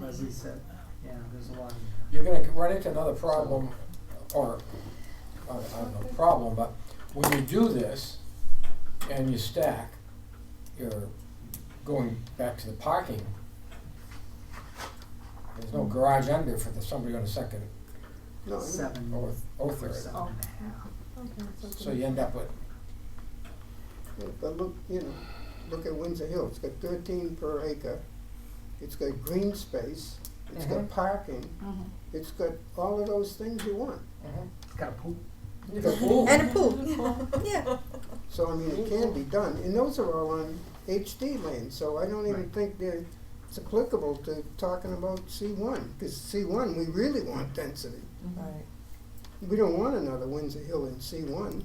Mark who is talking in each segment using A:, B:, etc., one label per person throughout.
A: Leslie said, yeah, there's a lot in there.
B: You're gonna run into another problem, or, I I don't know, problem, but when you do this and you stack, you're going back to the parking. There's no garage under for the, somebody on the second
C: No, I
A: Seven,
B: or, or
A: or
B: third,
A: seven and a half.
B: so you end up with,
C: know, but look, you know, look at Windsor Hill, it's got thirteen per acre, it's got green space, it's got
B: Mhm.
C: parking, it's got all of those things you want.
A: It's got a pool.
B: you go, ooh,
D: And a pool, yeah.
C: So, I mean, it can be done, and those are all on HD land, so I don't even
A: Right.
C: think they're, it's applicable to talking about C one, because C one, we really want density.
D: Right.
C: We don't want another Windsor Hill in C one,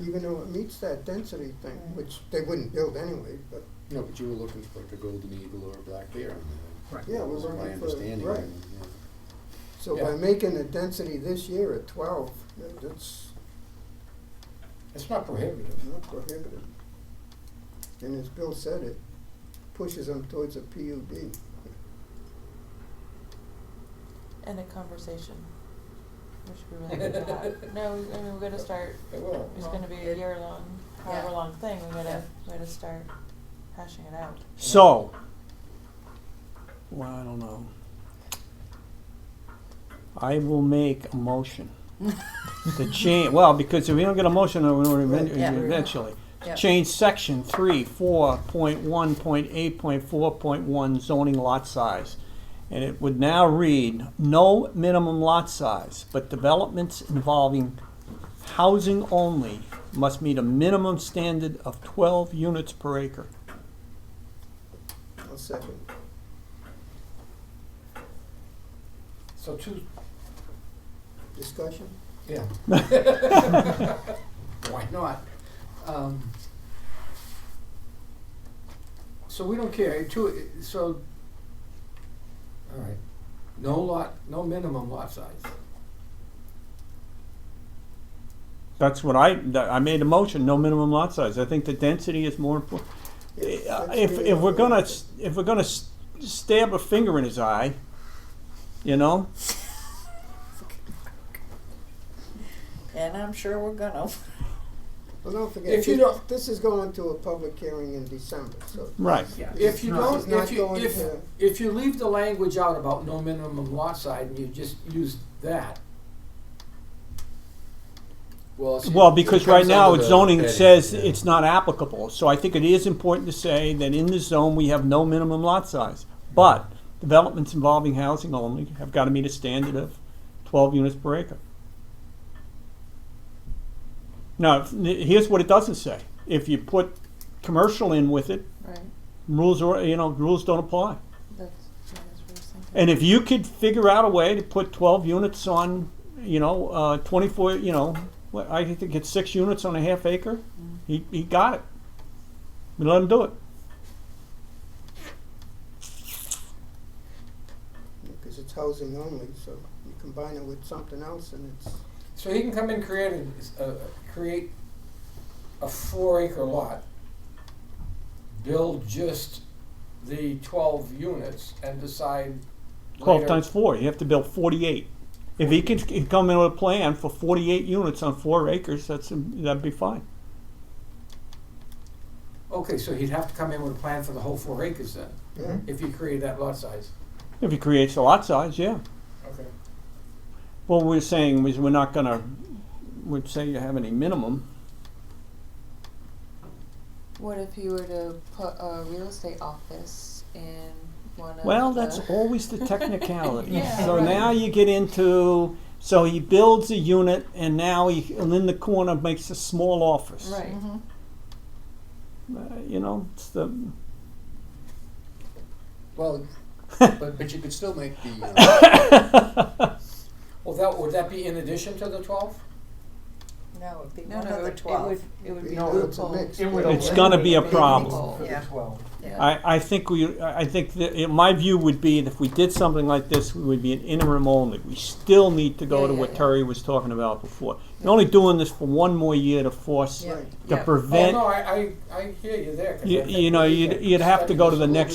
C: even though it meets that density thing,
D: Right.
C: which they wouldn't build anyway, but,
E: No, but you were looking for like a golden eagle or a black bear on there.
A: Right.
C: yeah,
E: That
C: we're
E: was
C: looking for, right.
E: my understanding. and, yeah.
C: So by
B: Yeah.
C: making the density this year at twelve, that- that's
B: it's not prohibitive.
C: not prohibited. And as Bill said, it pushes them towards a PUD.
F: And a conversation, which we really need to have. No, I mean, we're gonna start,
B: It will.
F: it's gonna be a year long, however long thing, we gotta, we gotta start hashing it out.
G: So, well, I don't know. I will make a motion to change, well, because if we don't get a motion, then we don't even-
D: Yeah.
G: eventually.
D: Yeah.
G: Change section three, four, point one, point eight, point four, point one zoning lot size. And it would now read, no minimum lot size, but developments involving housing only must meet a minimum standard of twelve units per acre.
C: I'll second.
B: So two,
C: Discussion?
B: yeah. Why not? Um, So we don't care, two, so, all right, no lot, no minimum lot size.
G: That's what I, that- I made a motion, no minimum lot size. I think the density is more important.
C: Yes, that's
G: uh, If,
C: really
G: if we're gonna,
C: important.
G: s- if we're gonna s- stab a finger in his eye, you know,
D: And I'm sure we're gonna.
C: Well, don't
B: If
C: forget,
B: you
C: this,
B: don't-
C: this is going to a public hearing in December, so.
G: right.
A: Yeah,
B: If you
A: it's not-
C: It's
B: don't,
C: not
B: if you,
C: going
B: if,
C: to-
B: if you leave the language out about no minimum lot size and you just use that.
E: Well, it's-
G: Well,
E: it
G: because
E: comes
G: right now,
E: under
G: it's
E: the
G: zoning
E: heading,
G: says
E: yeah.
G: it's not applicable. So I think it is important to say that in the zone, we have no minimum lot size. But developments involving housing only have gotta meet a standard of twelve units per acre. Now, if- here's what it doesn't say. If you put commercial in with it,
F: Right,
G: rules are, you know, rules don't apply.
F: that's, that's what I was thinking.
G: And if you could figure out a way to put twelve units on, you know, uh, twenty-four, you know, what, I think it's six units on a half acre, he, he got it. We let him do it.
C: Because it's housing only, so you combine it with something else and it's,
B: So he can come and create a, a, create a four acre lot. Build just the twelve units and decide
G: Twelve
B: later-
G: times four, you have to build forty-eight. If he could c- come in with a plan for forty-eight units on four acres, that's, that'd be fine.
B: Okay, so he'd have to come in with a plan for the whole four acres then,
C: yeah.
B: if he created that lot size.
G: If he creates a lot size, yeah.
B: Okay.
G: What we're saying is we're not gonna, we'd say you have any minimum.
F: What if you were to put a real estate office in one of
G: Well, that's
F: the-
G: always the technicality.
F: Yeah,
G: so
F: right.
G: now you get into so he builds a unit and now he and in the corner makes a small office.
F: Right,
G: Uh, you know, it's the
E: Well, but, but you could still make the, uh,
B: Well, that, would that be in addition to the twelve?
D: No, it'd be
F: no,
D: one
F: no,
D: of the
F: it would, it would,
D: twelve.
F: it would be
C: No, it's a
F: loophole.
C: mix.
G: It's gonna be a
A: eliminate
G: problem.
A: For the
D: Yeah.
A: twelve.
D: Yeah.
G: I, I think we I I think that it, my view would be that if we did something like this, we would be an interim only. We still need to go
F: Yeah,
G: to
F: yeah,
G: what
F: yeah.
G: Terry was talking about before. You're only doing this for one more year to force
D: Yeah.
C: Right.
G: to
D: Yeah.
B: Oh,
G: prevent.
B: no, I, I, I hear you there. 'cause I
G: You,
B: think
G: you know,
B: we
G: you'd
B: can
G: you'd have to
B: study
G: go
B: this
G: to
B: a
G: the
B: little
G: next